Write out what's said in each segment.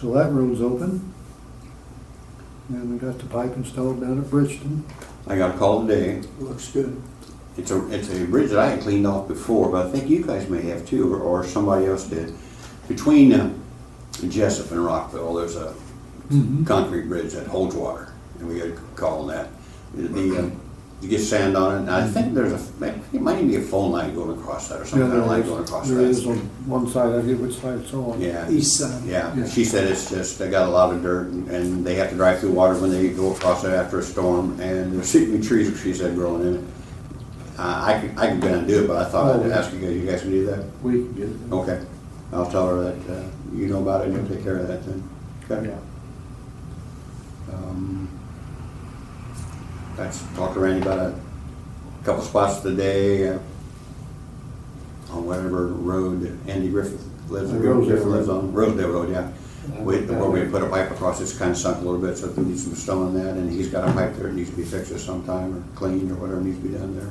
So that road's open. And we got the pipe installed down at Bridgeton. I got a call today. Looks good. It's a, it's a bridge that I had cleaned off before, but I think you guys may have too, or, or somebody else did. Between uh, Jessup and Rockville, there's a Mhm. concrete bridge that holds water, and we got a call on that. The- The, uh, you get sand on it, and I think there's a, it might even be a phone line going across that or Yeah, something, there a line is- going across There is on that. one side, I forget which side it's on. Yeah. East side. Yeah, Yeah. she said it's just, they got a lot of dirt and- and they have to drive through water when they go across it after a storm and there's so many trees, she said, growing in it. I, I could, I could go down and do it, but I thought Oh. I'd ask you guys, you guys can do that? We can get it. Oh, Okay, I'll tell her that, uh, you know about it and you'll take care of that then. Okay. Yeah. Um, That's, talked to Randy about a couple spots today uh, on whatever road that Andy Griffith lives, Uh, Rosedale Griffith lives Road. on, Rosedale Road, yeah. Yeah. We, where we put a pipe across, it's kind of sunk a little bit, so we need some stone in that, and he's got a pipe there, that needs to be fixed at some time, or cleaned, or whatever needs to be done there.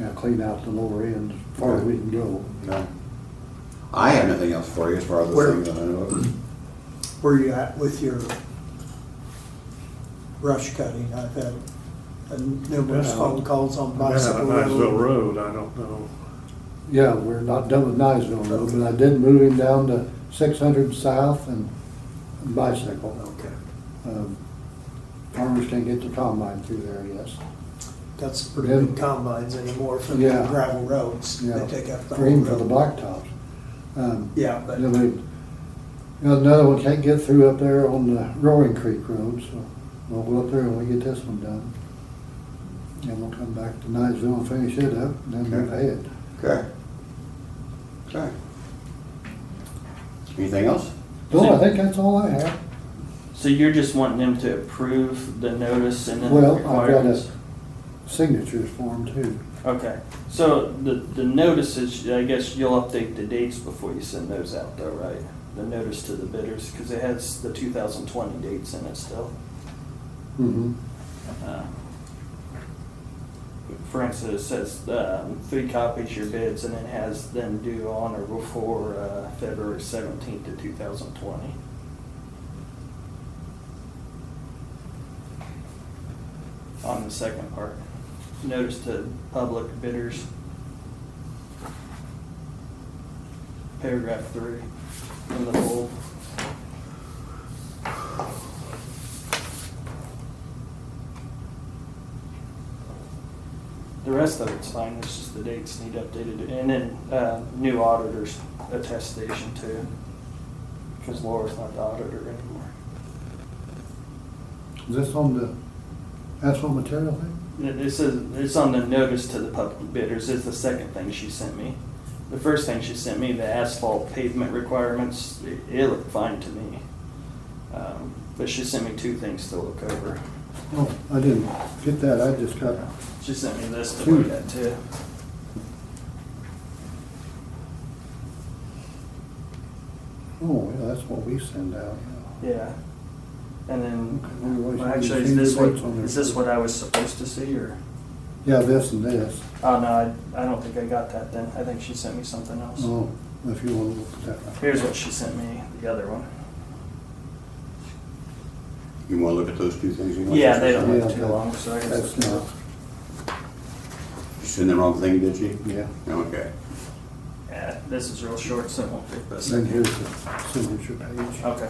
Yeah, clean out the lower end as far as we can go. Okay. I have nothing else for you as far as the Where- things that I know of. Where you at with your brush cutting? I've had uh, numerous Yeah. phone calls on Yeah, bicycle Niceville road. Road, I don't know. Yeah, we're not done with Niceville Road, but I did move him down to six hundred south and bicycle. Okay, Oh. Um, Farmers can't get the combine through there, yes. got some pretty big Yeah. combines anymore for the Yeah. gravel roads. Yeah. They take up the Or whole even for the road. blacktops. Um, Yeah, but And then we, you know, another one can't get through up there on the Roaring Creek Road, so we'll go up there and we'll get this one done. And we'll come back to Niceville and finish it up, and then move ahead. Okay. Okay. Anything else? No, I think that's all I have. So you're just wanting them to approve the notice and then the Well, I've got requirements? a signatures form too. Okay, so the, the notices, I guess you'll update the dates before you send those out though, right? The notice to the bidders, because it has the two thousand twenty dates in it still. Mm-hmm. Uh, For instance, it says, um, three copies your bids and it has them due on or before, uh, February seventeenth of two thousand twenty. On the second part, notice to public bidders. Paragraph three in the bold. The rest of it's fine, it's just the dates need updated, and then, uh, new auditor's attestation too. Cause Laura's not the auditor anymore. Is this on the asphalt material thing? It it says, it's on the notice to the public bidders, it's the second thing she sent me. The first thing she sent me, the asphalt pavement requirements, it, it looked fine to me. Um, But she sent me two things to look over. Oh, I didn't get that, I just got, She sent me this to look at too. oh, yeah, that's what we send out, yeah. Yeah. And Okay, then, well, well, you actually, see is this the what, dates on there. is this what I was supposed to see, or? Yeah, this and this. Oh, no, I, I don't think I got that then. I think she sent me something else. Oh, if you want to look at that. Here's what she sent me, the other one. You wanna look at those two things? you want? Yeah, they don't Yeah, look too that- long, so I guess. That's it's- not, You sent the wrong thing, did you? yeah. Okay. Yeah, this is real short, so it won't fit this. Then here's the signature page. Okay.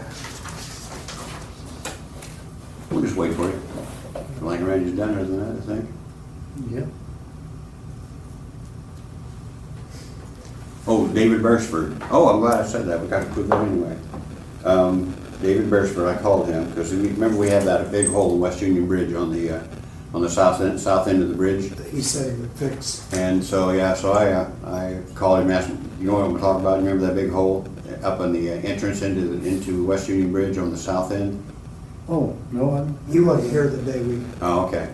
We'll just wait for you. Like Randy's done other than that, I think. Yep. Oh, David Beresford. Oh, I'm glad I said that. We got to put that anyway. Um, David Beresford, I called him because remember we had that big hole in West Union Bridge on the, uh, on the south end, south end of the bridge? he said he would fix, And so, yeah, so I, uh, I called him, asked him, you know what I'm talking about? Remember that big hole up on the uh, entrance into, the- into West Union Bridge on the south end? Oh, no, I'm. he wasn't here the day we Oh, okay.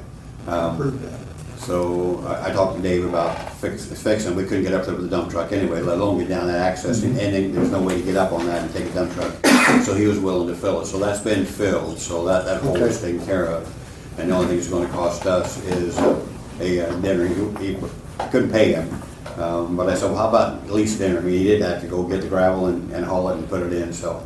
Um, approved that. So I, I talked to Dave about fix, fixing, we couldn't get up there with a dump truck anyway, let alone get down that access, and, and then there's no way to get up on that and take a dump truck. So he was willing to fill it, so that's been filled, so that, that hole is taken care of. And the only thing it's gonna cost us is a uh, dinner, he, he couldn't pay him. Um, but I said, well, how about at least dinner, I mean, he did have to go get the gravel and, and haul it and put it in, so